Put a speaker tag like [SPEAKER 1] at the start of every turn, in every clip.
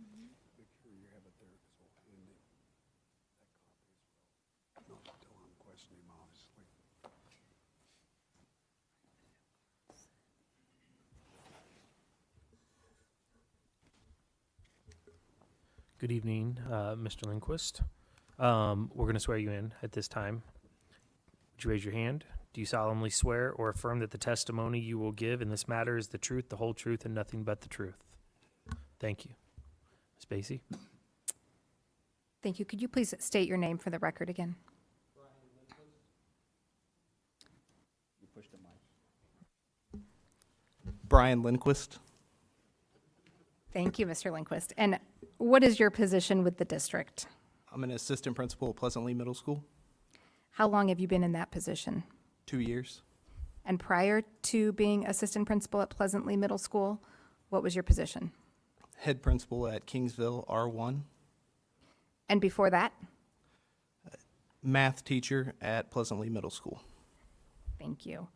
[SPEAKER 1] Mm-hmm.
[SPEAKER 2] Good evening, uh, Mr. Lindquist. Um, We're going to swear you in at this time. Would you raise your hand? Do you solemnly swear or affirm that the testimony you will give in this matter is the truth, the whole truth, and nothing but the truth? Thank you. Ms. Basie?
[SPEAKER 3] Thank you. Could you please state your name for the record again?
[SPEAKER 4] Brian Lindquist.
[SPEAKER 3] Thank you, Mr. Lindquist. And what is your position with the district?
[SPEAKER 4] I'm an assistant principal at Pleasant Lee Middle School,
[SPEAKER 3] How long have you been in that position?
[SPEAKER 4] two years.
[SPEAKER 3] And prior to being assistant principal at Pleasantly Middle School, what was your position?
[SPEAKER 4] Head principal at Kingsville R1,
[SPEAKER 3] And before that?
[SPEAKER 4] math teacher at Pleasant Lee Middle School.
[SPEAKER 3] Thank you.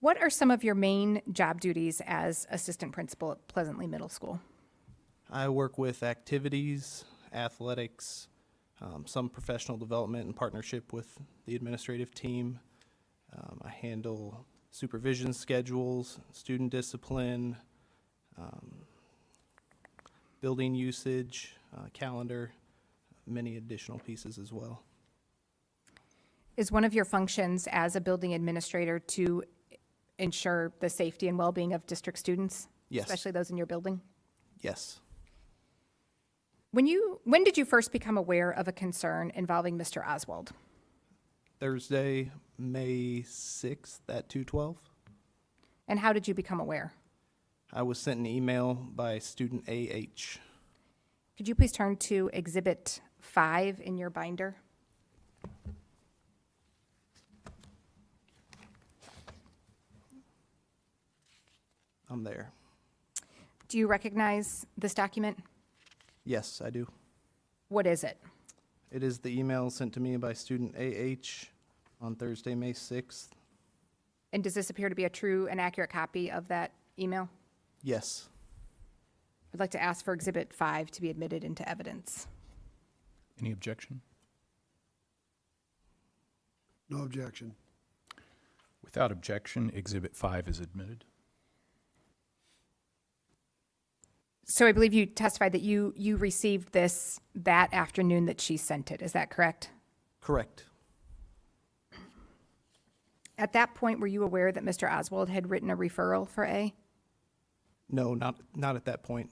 [SPEAKER 3] What are some of your main job duties as assistant principal at Pleasantly Middle School?
[SPEAKER 4] I work with activities, athletics, um, some professional development in partnership with the administrative team. Um, I handle supervision schedules, student discipline, um, building usage, uh, calendar, many additional pieces as well.
[SPEAKER 3] Is one of your functions as a building administrator to ensure the safety and well-being of district students?
[SPEAKER 4] Yes.
[SPEAKER 3] Especially those in your building?
[SPEAKER 4] Yes.
[SPEAKER 3] When you, when did you first become aware of a concern involving Mr. Oswald?
[SPEAKER 4] Thursday, May 6th at 2:12.
[SPEAKER 3] And how did you become aware?
[SPEAKER 4] I was sent an email by student AH.
[SPEAKER 3] Could you please turn to Exhibit 5 in your binder?
[SPEAKER 4] I'm there.
[SPEAKER 3] Do you recognize this document?
[SPEAKER 4] Yes, I do.
[SPEAKER 3] What is it?
[SPEAKER 4] It is the email sent to me by student AH on Thursday, May 6th.
[SPEAKER 3] And does this appear to be a true and accurate copy of that email?
[SPEAKER 4] Yes.
[SPEAKER 3] I'd like to ask for Exhibit 5 to be admitted into evidence.
[SPEAKER 5] Any objection?
[SPEAKER 1] No objection.
[SPEAKER 5] Without objection, Exhibit 5 is admitted.
[SPEAKER 3] So I believe you testified that you, you received this that afternoon that she sent it, is that correct?
[SPEAKER 4] Correct.
[SPEAKER 3] At that point, were you aware that Mr. Oswald had written a referral for A?
[SPEAKER 4] No, not, not at that point.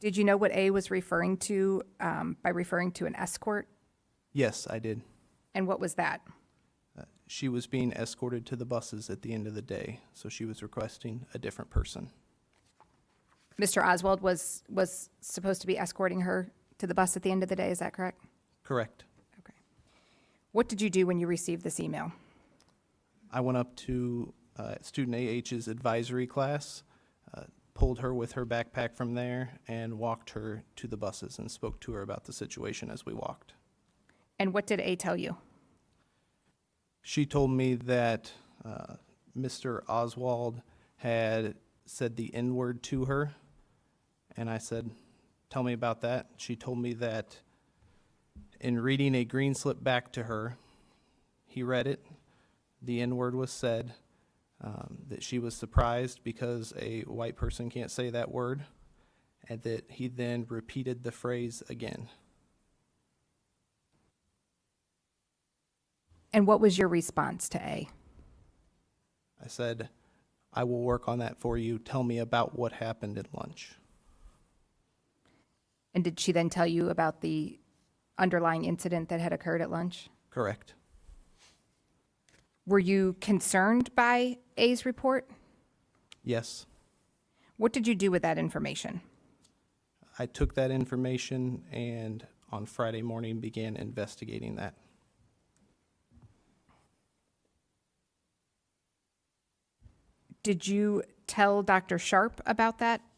[SPEAKER 3] Did you know what A was referring to um, by referring to an escort?
[SPEAKER 4] Yes, I did. Uh,
[SPEAKER 3] And what was that?
[SPEAKER 4] She was being escorted to the buses at the end of the day, so she was requesting a different person.
[SPEAKER 3] Mr. Oswald was, was supposed to be escorting her to the bus at the end of the day, is that correct?
[SPEAKER 4] Correct.
[SPEAKER 3] Okay. What did you do when you received this email?
[SPEAKER 4] I went up to uh, student AH's advisory class, uh, pulled her with her backpack from there, and walked her to the buses and spoke to her about the situation as we walked.
[SPEAKER 3] And what did A tell you?
[SPEAKER 4] She told me that uh, Mr. Oswald had said the N word to her, and I said, Tell me about that. She told me that in reading a green slip back to her, he read it, the N word was said, um, that she was surprised because a white person can't say that word, and that he then repeated the phrase again.
[SPEAKER 3] And what was your response to A?
[SPEAKER 4] I said, I will work on that for you. Tell me about what happened at lunch.
[SPEAKER 3] And did she then tell you about the underlying incident that had occurred at lunch?
[SPEAKER 4] Correct.
[SPEAKER 3] Were you concerned by A's report?
[SPEAKER 4] Yes.
[SPEAKER 3] What did you do with that information?
[SPEAKER 4] I took that information and on Friday morning began investigating that.
[SPEAKER 3] Did you tell Dr. Sharp about that